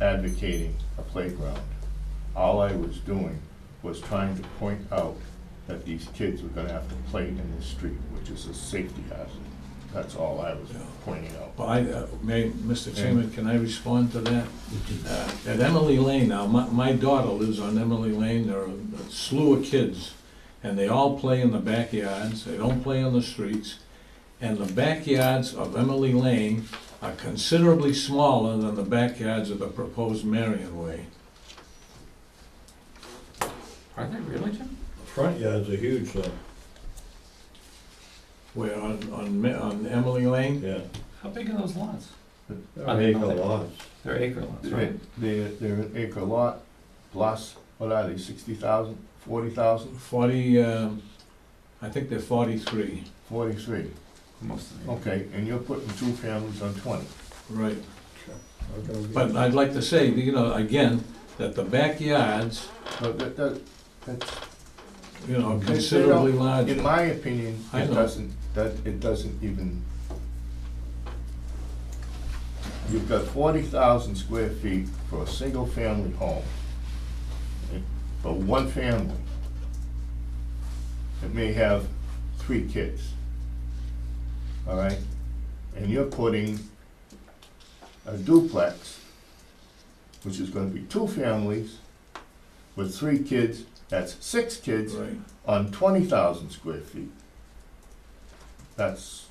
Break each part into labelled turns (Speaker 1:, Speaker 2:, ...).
Speaker 1: advocating a playground. All I was doing was trying to point out that these kids were gonna have to play in this street, which is a safety hazard. That's all I was pointing out.
Speaker 2: Well, I, uh, may, Mr. Chairman, can I respond to that? Uh, At Emily Lane now, my, my daughter lives on Emily Lane, there are a slew of kids, and they all play in the backyards, they don't play on the streets. And the backyards of Emily Lane are considerably smaller than the backyards of the proposed Marion Way.
Speaker 3: Are they really, Jim?
Speaker 4: Front yards are huge, so,
Speaker 2: Where on, on, Ma- on Emily Lane,
Speaker 4: yeah.
Speaker 3: How big are those lots? I
Speaker 4: They
Speaker 3: mean,
Speaker 4: Make a
Speaker 3: nothing.
Speaker 4: lot.
Speaker 3: They're acre lots,
Speaker 1: They're,
Speaker 3: right?
Speaker 1: they're they're an acre lot, plus, what are they, sixty thousand, forty thousand,
Speaker 2: forty, um, I think they're forty-three,
Speaker 1: forty-three?
Speaker 3: Most of them.
Speaker 1: Okay, and you're putting two families on twenty.
Speaker 2: right?
Speaker 4: Okay.
Speaker 2: But I'd like to say, you know, again, that the backyards,
Speaker 1: But that, that, that's
Speaker 2: you know, considerably larger.
Speaker 1: In my opinion,
Speaker 2: I
Speaker 1: it
Speaker 2: know.
Speaker 1: doesn't, that, it doesn't even. You've got forty thousand square feet for a single-family home, and- for one family. It may have three kids, all right? And you're putting a duplex, which is gonna be two families with three kids, that's six kids,
Speaker 2: Right,
Speaker 1: on twenty thousand square feet. That's,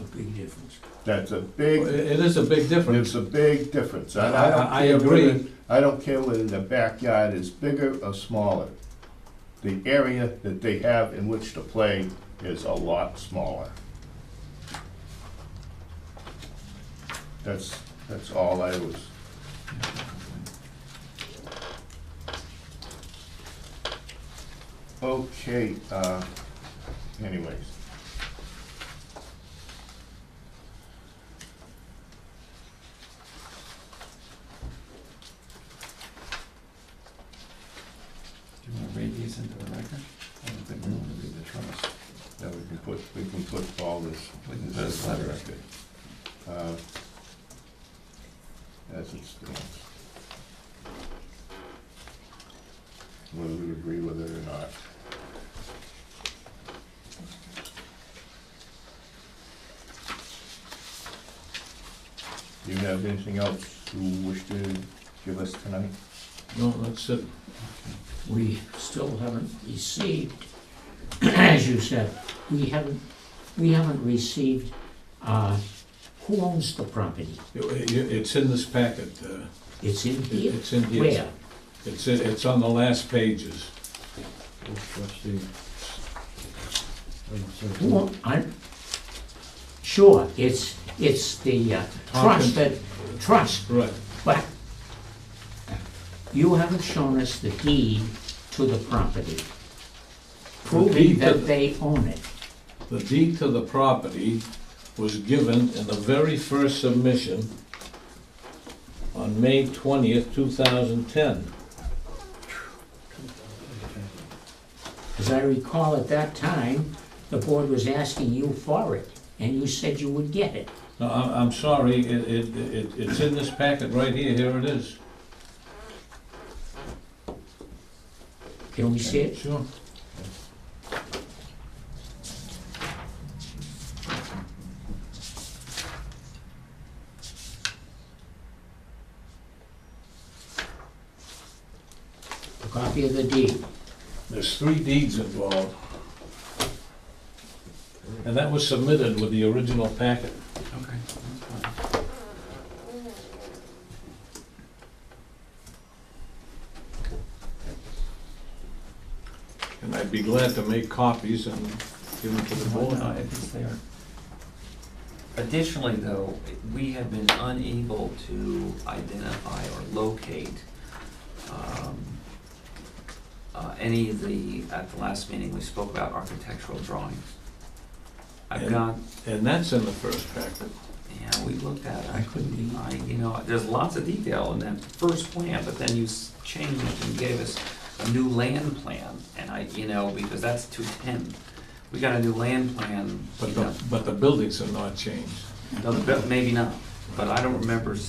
Speaker 5: A big difference.
Speaker 1: that's a
Speaker 2: Well,
Speaker 1: big,
Speaker 2: it it is a big difference.
Speaker 1: it's a big difference,
Speaker 2: I,
Speaker 1: and I don't
Speaker 2: I
Speaker 1: care whether,
Speaker 2: agree,
Speaker 1: I don't care whether the backyard is bigger or smaller. The area that they have in which to play is a lot smaller. That's, that's all I was, okay, uh, anyways.
Speaker 3: Do you wanna read these into the record? I don't think we wanna read the trust.
Speaker 1: Yeah, we can put, we can put all this,
Speaker 3: We can put
Speaker 1: this
Speaker 3: a
Speaker 1: is
Speaker 3: letter.
Speaker 1: record. Uh, As it stands. Whether we agree with it or not. Do you have anything else you wish to give us tonight?
Speaker 2: no, uh, that's it,
Speaker 5: We still haven't received, as you said, we haven't, we haven't received, uh, who owns the property?
Speaker 2: It- it- it's in this packet, uh,
Speaker 5: It's in
Speaker 2: it-
Speaker 5: here?
Speaker 2: it's in here.
Speaker 5: Where?
Speaker 2: It's, in- it's on the last pages.
Speaker 4: Trustee.
Speaker 5: Who, own- I'm, sure, it's, it's the uh, trust that, trust,
Speaker 2: Right,
Speaker 5: but you haven't shown us the deed to the property, proving
Speaker 2: deed to the-
Speaker 5: that they own it.
Speaker 2: the deed to the property was given in the very first submission on May twentieth, two thousand ten.
Speaker 5: As I recall, at that time, the board was asking you for it, and you said you would get it.
Speaker 2: No, I'm, I'm sorry, it, it, it, it's in this packet right here, here it is.
Speaker 5: Can we see it?
Speaker 2: Sure.
Speaker 5: A copy of the deed.
Speaker 2: There's three deeds involved. And that was submitted with the original packet.
Speaker 3: Okay, that's fine.
Speaker 2: And I'd be glad to make copies and give them to the
Speaker 3: Well,
Speaker 2: board.
Speaker 3: no, if it's there. Additionally, though, we have been unable to identify or locate um, uh, any of the, at the last meeting, we spoke about architectural drawings. I've
Speaker 2: And-
Speaker 3: got,
Speaker 2: And that's in the first packet.
Speaker 3: yeah, we looked at it, I couldn't, I, you know, there's lots of detail in that first plan, but then you s- changed and gave us a new land plan, and I, you know, because that's two ten. We got a new land plan, you
Speaker 2: But
Speaker 3: know.
Speaker 2: the, but the buildings are not changed.
Speaker 3: No, the- Maybe not, but I don't remember